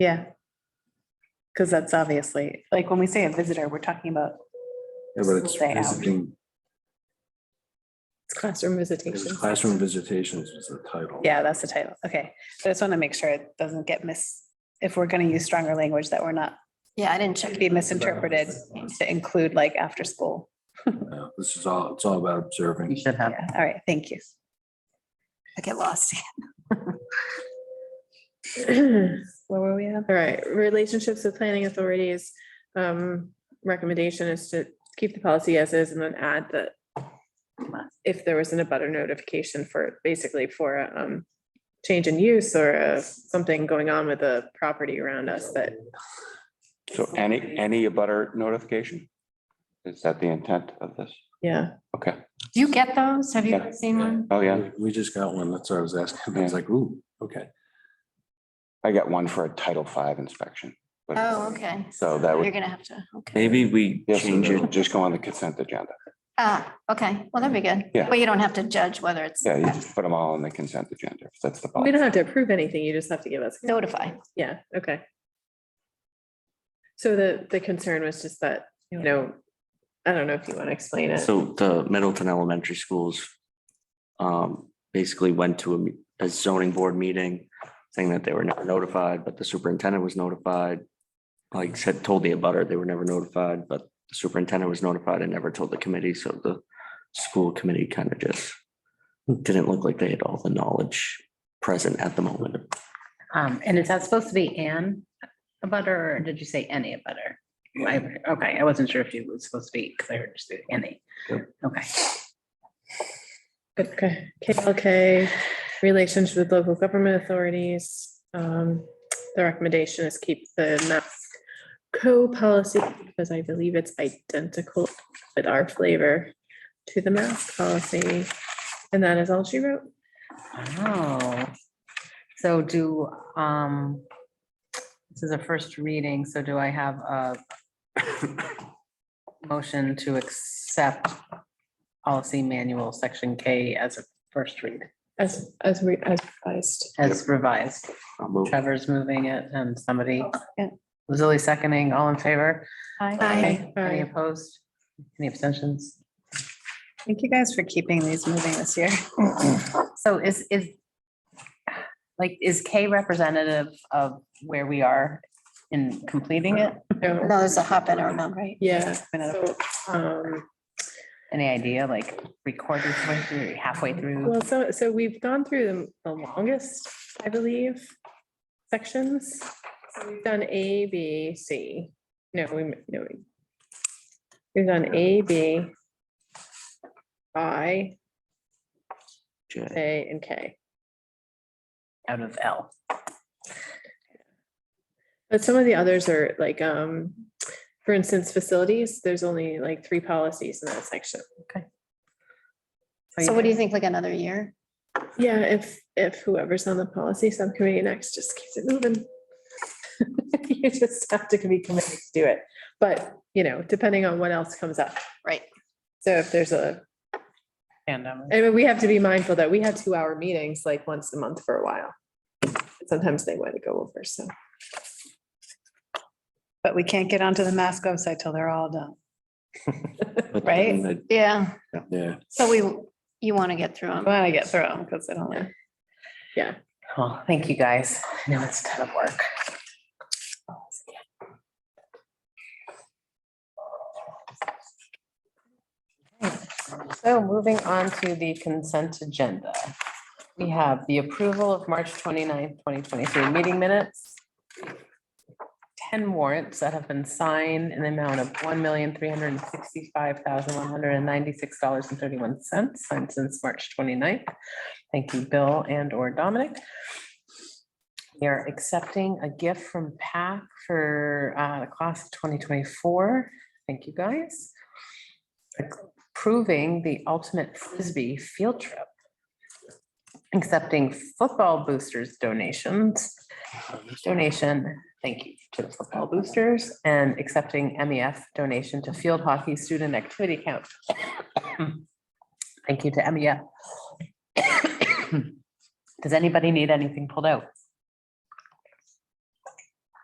Yeah. Because that's obviously, like, when we say a visitor, we're talking about Yeah, but it's Stay out. visiting, it's classroom it was visitation. classroom visitations is the title. Yeah, that's the title. Okay. So I just want to make sure it doesn't get mis, if we're going to use stronger language that we're not, Yeah, I didn't check. should be misinterpreted to include like after school. Yeah, This is all, it's all about observing. You should Yeah. have. All right, thank you. I get lost. Where were we at? All right, relationships with planning authorities. Um, recommendation is to keep the policy as is and then add that. If there was an abutter notification for, basically for a um, change in use or uh, something going on with the property around us that. So any, any abutter notification? Is that the intent of this? Yeah, Okay, Do you get those? Have you Yeah. seen one? oh yeah, We just got one. That's what I was asking. I was like, ooh, okay. I got one for a Title V inspection. but- Oh, okay. So that You're would, gonna have to, okay. Maybe we yes, change it. just go on the consent agenda. Ah, okay. Well, that'd be good. Yeah. But you don't have to judge whether it's Yeah, you just put them all on the consent agenda, if that's the. we policy. don't have to approve anything. You just have to give us. notify. Yeah, okay. So the, the concern was just that, you know, I don't know if you want to explain it. So the Middleton Elementary Schools um, basically went to a me- a zoning board meeting saying that they were never notified, but the superintendent was notified. Like said, told the abutter they were never notified, but the superintendent was notified and never told the committee. So the school committee kind of just didn't look like they had all the knowledge present at the moment. Um, and is that supposed to be an a butter or did you say any a butter? Okay, I wasn't sure if you was supposed to be, because I heard you say any. Okay. Okay, KLK, relations with local government authorities. Um, the recommendation is keep the mask co-policy because I believe it's identical with our flavor to the mask policy. And that is all she wrote. Oh, so do, um, this is a first reading, so do I have a motion to accept policy manual, section K as a first read, As, as we, as advised. as revised? I'll move. Trevor's moving it and somebody, Yeah. Lizzie seconding, all in favor? Aye. Any Aye. opposed? Any abstentions? Thank you guys for keeping these moving this year. So is, is, like, is K representative of where we are in completing it? No, No, there's a hop in or not, right? Yeah, so, um, Any idea, like, recorded way through, halfway through? well, so, so we've gone through the- the longest, I believe, sections. So We've Done A, B, C. No, we, no. we- We've done A, B, I, Jay. A, and K. Out of L. But some of the others are like, um, for instance, facilities, there's only like three policies in that section. So what do you think, like another year? Yeah, if, if whoever's on the policy subcommittee next just keeps it moving. You just have to be committed to do it, but, you know, depending on what else comes up. Right. So if there's a, Fandom. I mean, we have to be mindful that we had two hour meetings like once a month for a while. Sometimes they want to go over, so. But we can't get onto the mask website till they're all done. But Right? then Yeah, Yeah. so we, you want to get through I them. want to get through them because I don't like. Well, thank you, guys. I know it's a ton of work. So moving on to the consent agenda. We have the approval of March 29th, twenty-three meeting minutes. Ten warrants that have been signed in the amount of one million, three hundred and sixty-five thousand, one hundred and ninety-six dollars and thirty-one cents signed since March 29th. Thank you, Bill and or Dominic. We are accepting a gift from PAC for uh, the class of 2024. Thank you, guys. Approving the ultimate frisbee field trip. Accepting football boosters donations, donation, thank you to the football boosters, and accepting MEF donation to field hockey student activity camp. E Thank you to MEF. Does anybody need anything pulled out?